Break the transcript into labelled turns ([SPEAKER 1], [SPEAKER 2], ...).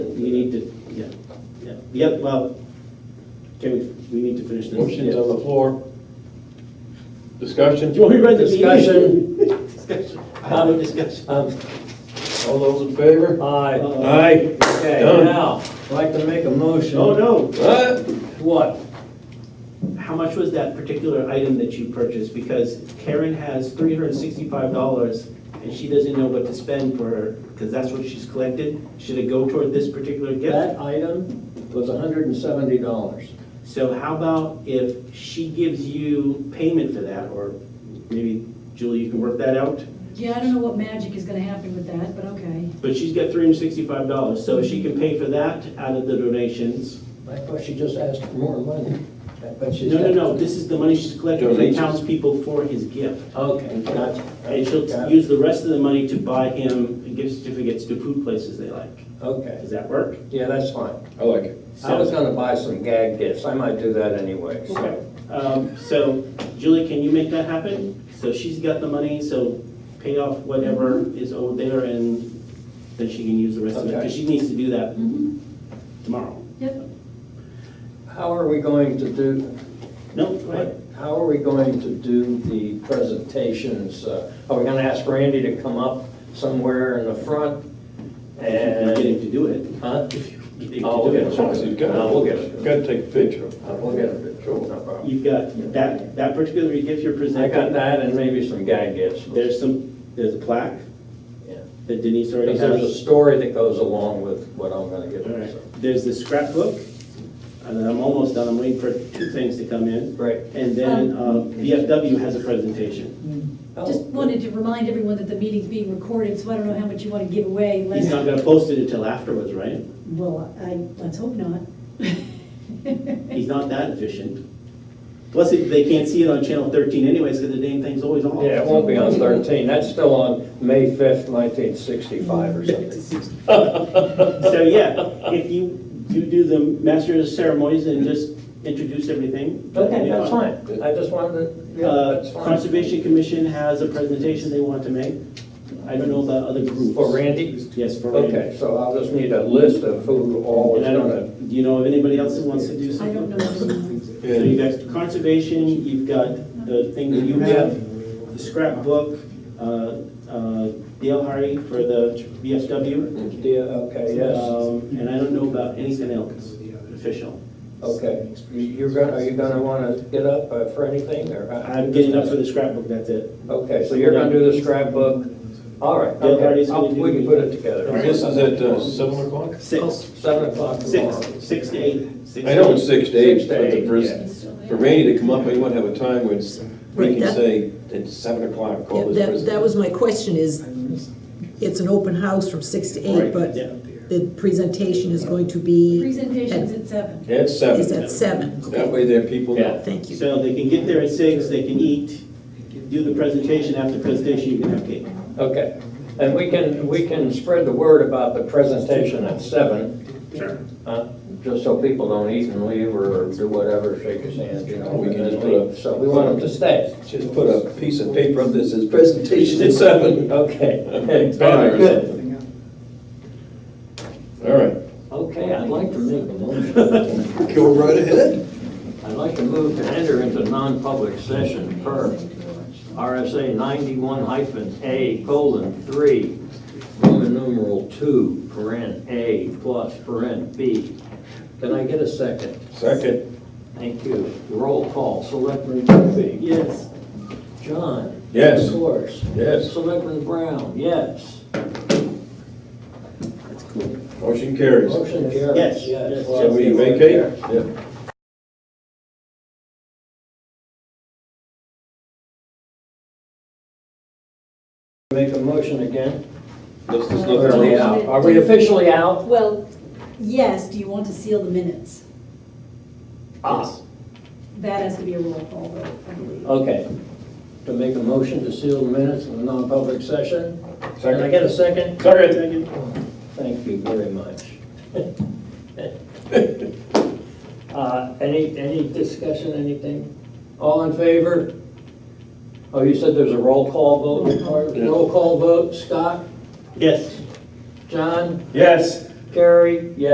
[SPEAKER 1] need to, yeah, yeah, the other, well, can we, we need to finish this.
[SPEAKER 2] Motion's on
[SPEAKER 1] Yeah.
[SPEAKER 2] the floor. Discussion?
[SPEAKER 1] Do you want me to read the
[SPEAKER 2] Discussion.
[SPEAKER 1] meeting? Discussion. Have a discussion.
[SPEAKER 3] Um,
[SPEAKER 2] All those in favor?
[SPEAKER 3] Aye.
[SPEAKER 1] Uh,
[SPEAKER 3] Okay,
[SPEAKER 2] Done.
[SPEAKER 3] now, I'd like to make a motion.
[SPEAKER 1] No, Oh, no,
[SPEAKER 2] What?
[SPEAKER 3] What?
[SPEAKER 1] how much was that particular item that you purchased? Because Karen has three hundred and sixty-five dollars, and she doesn't know what to spend for her, because that's what she's collected. Should it go toward this particular gift?
[SPEAKER 3] That item was hundred and seventy dollars.
[SPEAKER 1] So how about if she gives you payment for that, or maybe Julie, you can work that out?
[SPEAKER 4] Yeah, I don't know what magic is gonna happen with that, but okay.
[SPEAKER 1] But she's got three hundred and sixty-five dollars, so she can pay for that out of the donations.
[SPEAKER 3] I thought she just asked for more money, but she's.
[SPEAKER 1] No, no, no, this is the money she's collecting from the
[SPEAKER 2] Donations.
[SPEAKER 1] townspeople for his gift.
[SPEAKER 3] Okay, gotcha.
[SPEAKER 1] And she'll
[SPEAKER 3] Got it.
[SPEAKER 1] use the rest of the money to buy him gift certificates to food places they like.
[SPEAKER 3] Okay,
[SPEAKER 1] Does that work?
[SPEAKER 3] yeah, that's fine.
[SPEAKER 2] I like it.
[SPEAKER 3] I was gonna buy some gag gifts, I might do that anyway, so.
[SPEAKER 1] Um, So Julie, can you make that happen? So she's got the money, so pay off whatever is owed there and then she can use the rest of it.
[SPEAKER 3] Okay.
[SPEAKER 1] Because she needs to do that
[SPEAKER 4] Mhm.
[SPEAKER 1] tomorrow.
[SPEAKER 4] Yep,
[SPEAKER 3] How are we going to do,
[SPEAKER 1] No, go ahead.
[SPEAKER 3] how are we going to do the presentations? Uh, Are we gonna ask Randy to come up somewhere in the front?
[SPEAKER 1] You're getting
[SPEAKER 3] And,
[SPEAKER 1] to do it.
[SPEAKER 3] huh?
[SPEAKER 1] You get to
[SPEAKER 3] Oh,
[SPEAKER 1] do
[SPEAKER 3] okay.
[SPEAKER 1] it.
[SPEAKER 2] So you gotta-
[SPEAKER 3] No, we'll get it.
[SPEAKER 2] you Gotta take a picture.
[SPEAKER 3] Uh, We'll get a picture, no problem.
[SPEAKER 1] You've got that, that particular gift you're
[SPEAKER 3] I got
[SPEAKER 1] presenting.
[SPEAKER 3] that and maybe some gag gifts.
[SPEAKER 1] There's some, there's a plaque
[SPEAKER 3] Yeah.
[SPEAKER 1] that Denise already
[SPEAKER 3] Because there's a
[SPEAKER 1] has.
[SPEAKER 3] story that goes along with what I'm gonna give
[SPEAKER 1] All right.
[SPEAKER 3] them, so.
[SPEAKER 1] There's the scrapbook, and then I'm almost done, I'm waiting for two things to come in.
[SPEAKER 3] Great.
[SPEAKER 1] And then uh,
[SPEAKER 4] Um,
[SPEAKER 1] VFW has a presentation.
[SPEAKER 4] just wanted to remind everyone that the meeting's being recorded, so I don't know how much you wanna give away,
[SPEAKER 1] He's
[SPEAKER 4] unless,
[SPEAKER 1] not gonna post it until afterwards, right?
[SPEAKER 4] well, I, let's hope not.
[SPEAKER 1] He's not that efficient. Plus, it- they can't see it on channel thirteen anyways, because the damn thing's always on.
[SPEAKER 3] Yeah, it won't be on thirteen, that's still on May fifth, nineteen sixty-five or something.
[SPEAKER 1] So, yeah, if you do do the master of ceremonies and just introduce everything.
[SPEAKER 3] Okay,
[SPEAKER 1] you know,
[SPEAKER 3] that's fine, I just wanted to, yeah,
[SPEAKER 1] Uh,
[SPEAKER 3] that's fine.
[SPEAKER 1] Conservation Commission has a presentation they want to make. I don't know about other groups.
[SPEAKER 3] For Randy?
[SPEAKER 1] Yes, for Randy.
[SPEAKER 3] Okay, so I'll just need a list of who all is
[SPEAKER 1] And I don't
[SPEAKER 3] gonna,
[SPEAKER 1] know, do you know of anybody else that wants to do
[SPEAKER 4] I
[SPEAKER 1] something?
[SPEAKER 4] don't know.
[SPEAKER 1] So you've got conservation, you've got the thing that you have, the scrapbook, uh, uh, Dale Hardy for the VFW.
[SPEAKER 3] yeah, Uh, okay, yes,
[SPEAKER 1] Um, And I don't know about anything else official.
[SPEAKER 3] okay. You- You're gonna, are you gonna wanna get up uh, for anything, or?
[SPEAKER 1] I'm getting up for the scrapbook, that's it.
[SPEAKER 3] Okay, so you're gonna do the scrapbook, all right,
[SPEAKER 1] Yeah, Artie's
[SPEAKER 3] okay,
[SPEAKER 1] gonna
[SPEAKER 3] I'll-
[SPEAKER 1] do
[SPEAKER 3] we
[SPEAKER 1] the-
[SPEAKER 3] can put it together.
[SPEAKER 2] This is at uh, seven o'clock?
[SPEAKER 1] Six,
[SPEAKER 3] Seven o'clock
[SPEAKER 1] six,
[SPEAKER 3] tomorrow.
[SPEAKER 1] six to eight. six
[SPEAKER 2] I
[SPEAKER 1] to
[SPEAKER 2] know
[SPEAKER 1] eight.
[SPEAKER 2] it's six to
[SPEAKER 3] Six
[SPEAKER 2] eight,
[SPEAKER 3] to
[SPEAKER 2] but the
[SPEAKER 3] eight,
[SPEAKER 2] first- for Randy to come up, we want to have a time when we can say, it's seven o'clock,
[SPEAKER 5] Yeah,
[SPEAKER 2] call this
[SPEAKER 5] That, that
[SPEAKER 2] presentation.
[SPEAKER 5] was my question, is, it's an open house from six to eight,
[SPEAKER 1] Right,
[SPEAKER 5] but
[SPEAKER 1] yeah.
[SPEAKER 5] the presentation is going to be,
[SPEAKER 4] Presentation's at seven.
[SPEAKER 2] At
[SPEAKER 5] is
[SPEAKER 2] seven.
[SPEAKER 5] at seven.
[SPEAKER 2] That way there people know.
[SPEAKER 5] Thank you.
[SPEAKER 1] So they can get there at six, they can eat, do the presentation, after presentation, you can have cake.
[SPEAKER 3] Okay, and we can, we can spread the word about the presentation at seven,
[SPEAKER 1] Sure.
[SPEAKER 3] uh, just so people don't eat and leave or do whatever, shake his hand, you know.
[SPEAKER 2] We can
[SPEAKER 3] and
[SPEAKER 2] just
[SPEAKER 3] then
[SPEAKER 2] put
[SPEAKER 3] leave.
[SPEAKER 2] a-
[SPEAKER 3] So we want them to stay.
[SPEAKER 2] Just put a piece of paper up that says presentation at seven.
[SPEAKER 3] Okay.
[SPEAKER 2] All right,
[SPEAKER 3] Very good.
[SPEAKER 2] All right.
[SPEAKER 3] Okay, I'd like to make a motion.
[SPEAKER 2] Go right ahead.
[SPEAKER 3] I'd like to move to enter into non-public session per RSA ninety-one hyphen A colon three, Roman numeral two, paren A plus paren B. Can I get a second?
[SPEAKER 2] Second.
[SPEAKER 3] Thank you. Roll call, Selectman Murphy.
[SPEAKER 1] Yes.
[SPEAKER 3] John?
[SPEAKER 2] Yes.
[SPEAKER 3] Of course.
[SPEAKER 2] Yes.
[SPEAKER 3] Selectman Brown, yes.
[SPEAKER 2] Motion carries.
[SPEAKER 3] Motion carries.
[SPEAKER 1] Yes.
[SPEAKER 3] Yes.
[SPEAKER 2] Shall we vacate? Yeah.
[SPEAKER 3] Make a motion again?
[SPEAKER 2] Let's just
[SPEAKER 3] Are we
[SPEAKER 2] look.
[SPEAKER 3] out? Are we officially out?
[SPEAKER 4] Well, yes, do you want to seal the minutes?
[SPEAKER 3] Ah.
[SPEAKER 4] That has to be a roll call vote, I believe.
[SPEAKER 3] Okay. To make a motion to seal the minutes of the non-public session? Can I get a second?
[SPEAKER 1] Second.
[SPEAKER 3] Thank you very much. Uh, Any, any discussion, anything? All in favor? Oh, you said there's a roll call vote?
[SPEAKER 2] Yeah.
[SPEAKER 3] Roll call vote, Scott,
[SPEAKER 1] Yes.
[SPEAKER 3] John,
[SPEAKER 2] Yes.
[SPEAKER 3] Carrie, yes.